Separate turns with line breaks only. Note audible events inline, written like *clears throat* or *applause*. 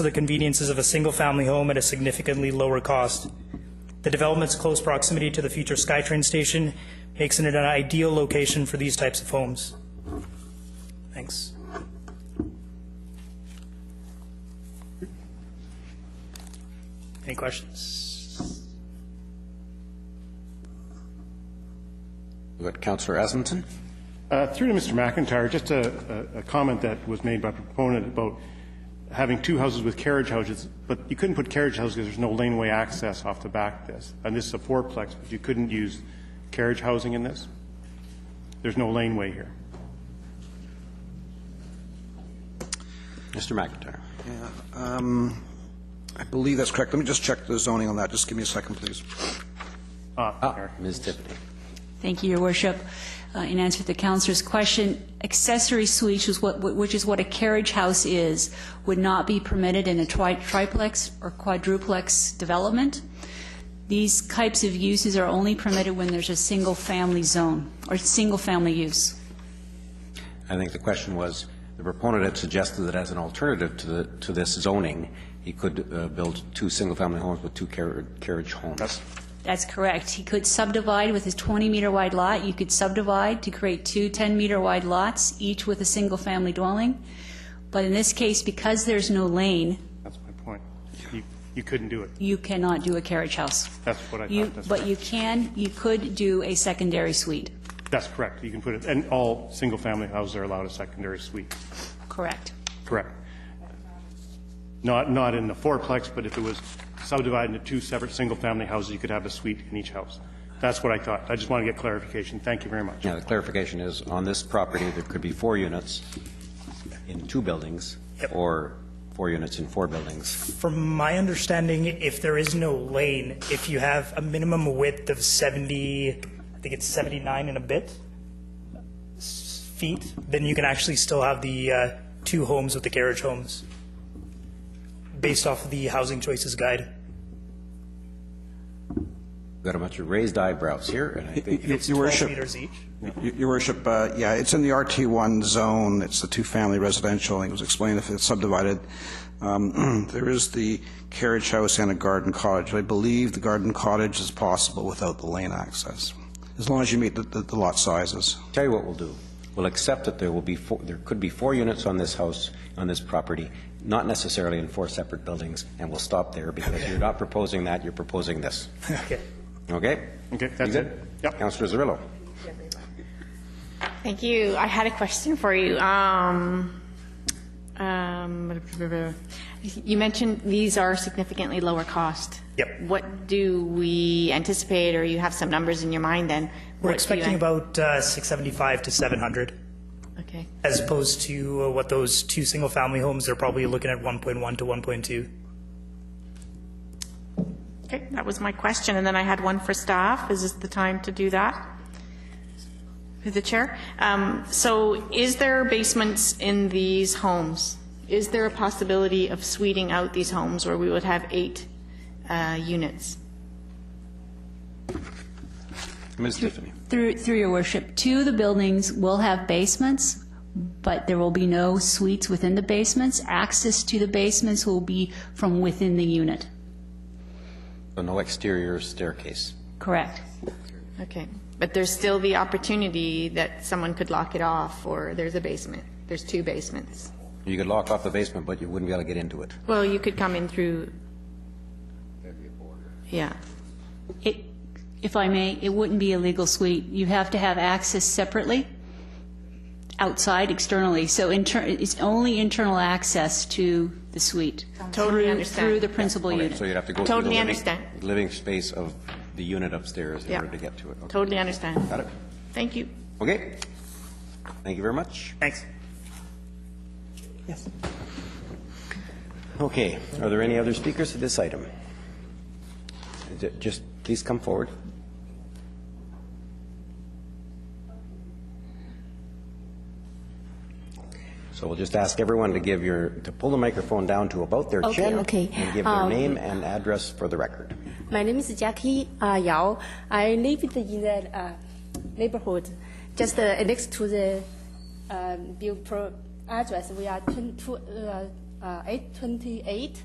for the conveniences of a single-family home at a significantly lower cost. The development's close proximity to the future SkyTrain station makes it an ideal location for these types of homes. Thanks. Any questions?
We've got Councillor Asmington.
Uh, Through to Mr. McIntyre, just a, a a comment that was made by a proponent about having two houses with carriage houses, but you couldn't put carriage houses because there's no laneway access off the back of this. And this is a fourplex, but you couldn't use carriage housing in this? There's no laneway here.
Mr. McIntyre.
Um, I believe that's correct. Let me just check the zoning on that. Just give me a second, please.
Ah, there.
Ms. Tiffany.
Thank you, Your Worship. Uh, In answer to the councillor's question, accessory suites, which is what- which is what a carriage house is, would not be permitted in a tri- triplex or quadruplex development. These types of uses are only permitted when there's a single-family zone or single-family use.
I think the question was, the proponent had suggested that as an alternative to the, to this zoning, he could uh, build two single-family homes with two carri- carriage homes.
That's correct. He could subdivide with his 20-meter-wide lot. You could subdivide to create two 10-meter-wide lots, each with a single-family dwelling. But in this case, because there's no lane,
That's my point. You, you couldn't do it.
you cannot do a carriage house.
That's what I
You-
thought. That's
But
right.
you can, you could do a secondary suite.
That's correct. You can put it, and all single-family houses are allowed a secondary suite.
Correct.
Correct. Not, not in the fourplex, but if it was subdivided into two separate single-family houses, you could have a suite in each house. That's what I thought. I just want to get clarification. Thank you very much.
Now, the clarification is, on this property, there could be four units in two buildings, or four units in four buildings.
From my understanding, if there is no lane, if you have a minimum width of 70, I think it's 79 and a bit s- feet, then you can actually still have the uh, two homes with the carriage homes, based off of the Housing Choices Guide.
We've got a bunch of raised eyebrows here, and I think
Your Your
12
Worship,
meters each.
Your Your Worship, uh, yeah, it's in the RT1 zone. It's the two-family residential. I think It was explained if it's subdivided. Um, *clears throat* There is the carriage house and a garden cottage. I believe the garden cottage is possible without the lane access, as long as you meet the- the the lot sizes.
Tell you what we'll do. We'll accept that there will be, four- there could be four units on this house, on this property, not necessarily in four separate buildings, and we'll stop there because you're not proposing that, you're proposing this.
Okay.
Okay?
Okay, that's
You
it.
good?
Yep.
Counselor Zerillo.
Thank you. I had a question for you. Um, um, you mentioned these are significantly lower cost.
Yep.
What do we anticipate, or you have some numbers in your mind then?
We're
What do you eh?
expecting
an-
about uh, 675 to 700,
Okay,
as opposed to uh, what those two single-family homes, they're probably looking at 1.1 to 1.2.
okay, that was my question, and then I had one for staff. Is this the time to do that? Through the chair. Um, so is there basements in these homes? Is there a possibility of suiting out these homes where we would have eight, uh, units?
Ms. Tiffany.
Through, through your worship, two of the buildings will have basements, but there will be no suites within the basements. Access to the basements will be from within the unit.
So No exterior staircase.
Correct.
Okay, but there's still the opportunity that someone could lock it off, or there's a basement, there's two basements.
You could lock off the basement, but you wouldn't be able to get into it.
Well, you could come in through. Yeah,
It, if I may, it wouldn't be a legal suite. You have to have access separately, outside, externally. So inter, it's only internal access to the suite.
Totally
through-
understand.
Through the principal unit.
So you'd have to go through the
Totally
living,
understand.
living space of the unit upstairs in
Yeah.
order to get to it. Okay.
totally understand.
Got it?
Thank you.
Okay. Thank you very much.
Thanks.
Okay, are there any other speakers to this item? Is it- Just, please come forward. So we'll just ask everyone to give your, to pull the microphone down to about their
Okay,
chin.
okay.
And give their
Um,
name and address for the record.
My name is Jackie uh, Yao. I live in the uh, neighborhood just uh, next to the um, bill pro address. We are 22, uh, uh, 828